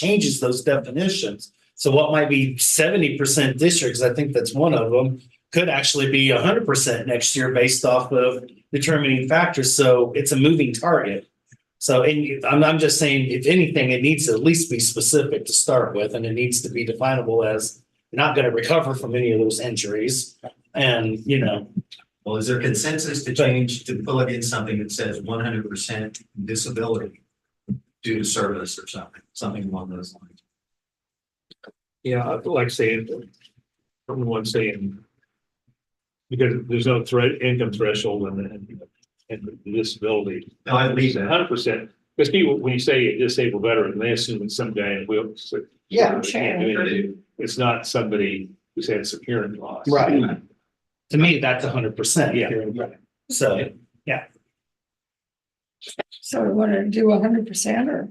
changes those definitions. So what might be seventy percent districts, I think that's one of them, could actually be hundred percent next year based off of determining factors. So it's a moving target. So and you- I'm I'm just saying, if anything, it needs to at least be specific to start with, and it needs to be definable as you're not going to recover from any of those injuries. And, you know, Well, is there consensus to change, to plug in something that says one hundred percent disability due to service or something, something along those lines? Yeah, like saying, someone saying. Because there's no threat, income threshold and, and, and disability. No, I believe A that. Hundred percent, because people, when you say a disabled veteran, they assume it's some guy in a wheelchair. Yeah, They can't do anything. It's not somebody who's had some hearing loss. Right. to me, that's hundred percent. Yeah. So So we want to do hundred percent or?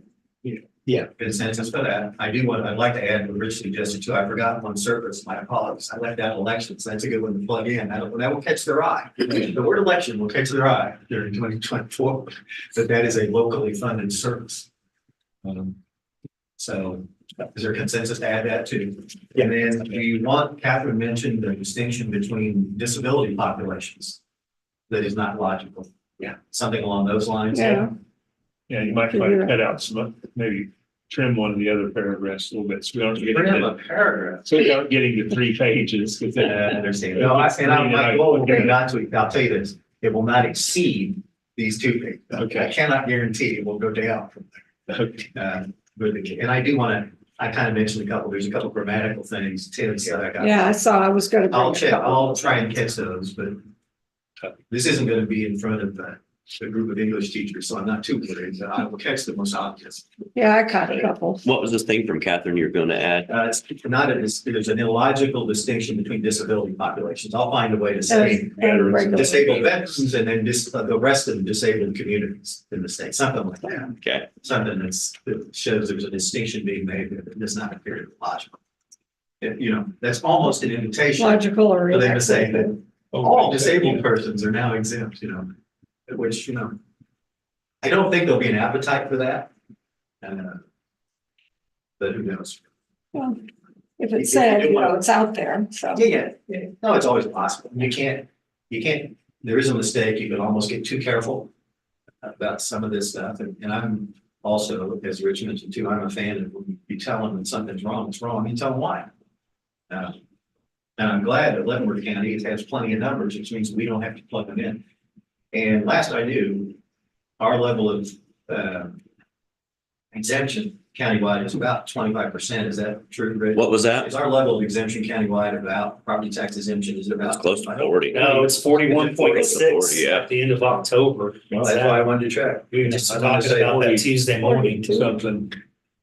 Consensus for that. I do want, I'd like to add what Rich suggested too. I forgot one service, my apologies. I left out elections. That's a good one to plug in. That'll, that will catch their eye. The word election will catch their eye during twenty twenty-four, that that is a locally funded service. Um, So is there consensus to add that too? And then do you want, Catherine mentioned the distinction between disability populations. That is not logical. Yeah. Something along those lines. Yeah. Yeah, you might try to cut out some, maybe trim one of the other paragraphs a little bit, so we don't get, Bring up into- a paragraph. so we don't get into three pages. 'cause I then- understand. No, I, and I'm like, well, we're Okay. not to, I'll tell you this, it will not exceed these two things. I Okay. cannot guarantee it will go down from Okay. there. Uh, But, it can- and I do want to, I kind of mentioned a couple, there's a couple grammatical things, tips that I got. Yeah, I saw, I was gonna. bring I'll a check, couple. I'll try and catch those, but this isn't going to be in front of a, a group of English teachers, so I'm not too worried, but I will catch the most obvious. Yeah, I caught a couple. What was this thing from Catherine you're gonna add? Uh, it's not a, dis- there's an illogical distinction between disability populations. I'll find a way to say. And- and regular. disabled veterans and then just the rest of the disabled communities in the state, something like that. Okay. Something that's, that shows there's a distinction being made that does not appear to be logical. If, you know, that's almost an invitation Logical or. for them to say irregular. that all disabled persons are now exempt, you know, which, you know. I don't think there'll be an appetite for that. uh, But who knows? Well, If If- if it's said, you you know, want- it's out there, so. Yeah, yeah, yeah. No, it's always possible. You can't, you can't, there is a mistake. You can almost get too careful about some of this stuff. And, and I'm also, as Rich mentioned too, I'm a fan of when you tell them that something's wrong, it's wrong, you tell them why. Uh, And I'm glad that Leavenworth County has plenty of numbers, which means we don't have to plug them in. And last I knew, our level of, uh, exemption countywide is about twenty-five percent. Is that true, Rich? What was that? Is our level of exemption countywide about property tax exemption is it It's about? close to forty. no, it's forty-one point six Yeah. at the end of October. That's why I wanted to check. We were just I wanted to talking say about that 40. Tuesday morning too. Something.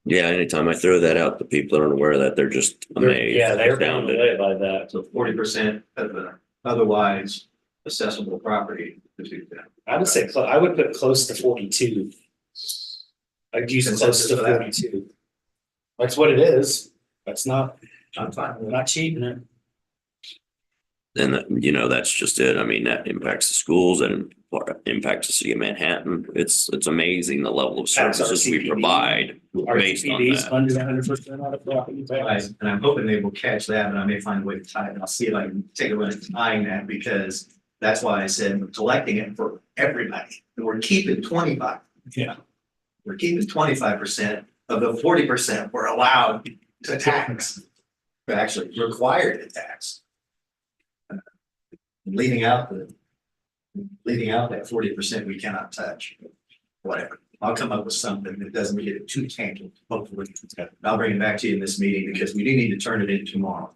Yeah, anytime I throw that out, the people that aren't aware of that, they're just They're- amazed. Yeah, they're blown astounded. away by that. So forty percent of the otherwise accessible property. is exempt. I would say, clo- I would put close to forty-two. I'd use close Consensus to for that. forty-two. That's what it is. That's not, I'm fine we're with that. not cheating it. And that, you know, that's just it. I mean, that impacts the schools and impacts the city of Manhattan. It's, it's amazing the level of That's our services we CPD. provide Our based on TPDs that. under hundred percent out of property Right, tax. And I'm hoping they will catch that and I may find a way to tie it. I'll see if I can take a look at tying that because that's why I said we're collecting it for everybody. And We're keeping twenty-five. Yeah. We're keeping twenty-five percent of the forty percent we're allowed to tax. We're Actually required to tax. Uh, Leaving out the, leaving out that forty percent we cannot touch. Whatever. I'll come up with something that doesn't get it too tangled, hopefully. I'll bring it back to you in this meeting because we do need to turn it in tomorrow.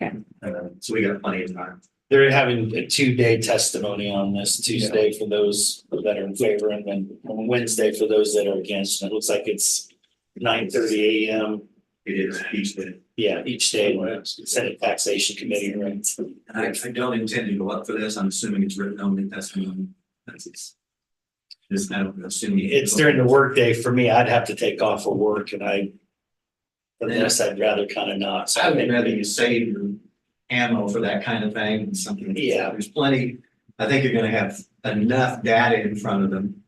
Okay. Uh, so we got plenty of time. They're having a two-day testimony on this Tuesday for those that are in favor and then on Wednesday for those that are against. And it looks like it's nine thirty AM. It is each day. Yeah, each day when it's Senate Taxation Committee, right? And I, I don't intend to go up for this. I'm assuming it's written on the testimony. That's it's. Just, I don't assume. you- It's during the workday for me. I'd have to take off for work and I. But this, I'd rather kind of not. So I would rather you save your ammo for that kind of thing and something. Yeah. There's plenty, I think you're gonna have enough data in front of them,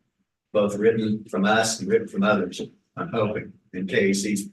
both written from us and written from others, I'm hoping, in case these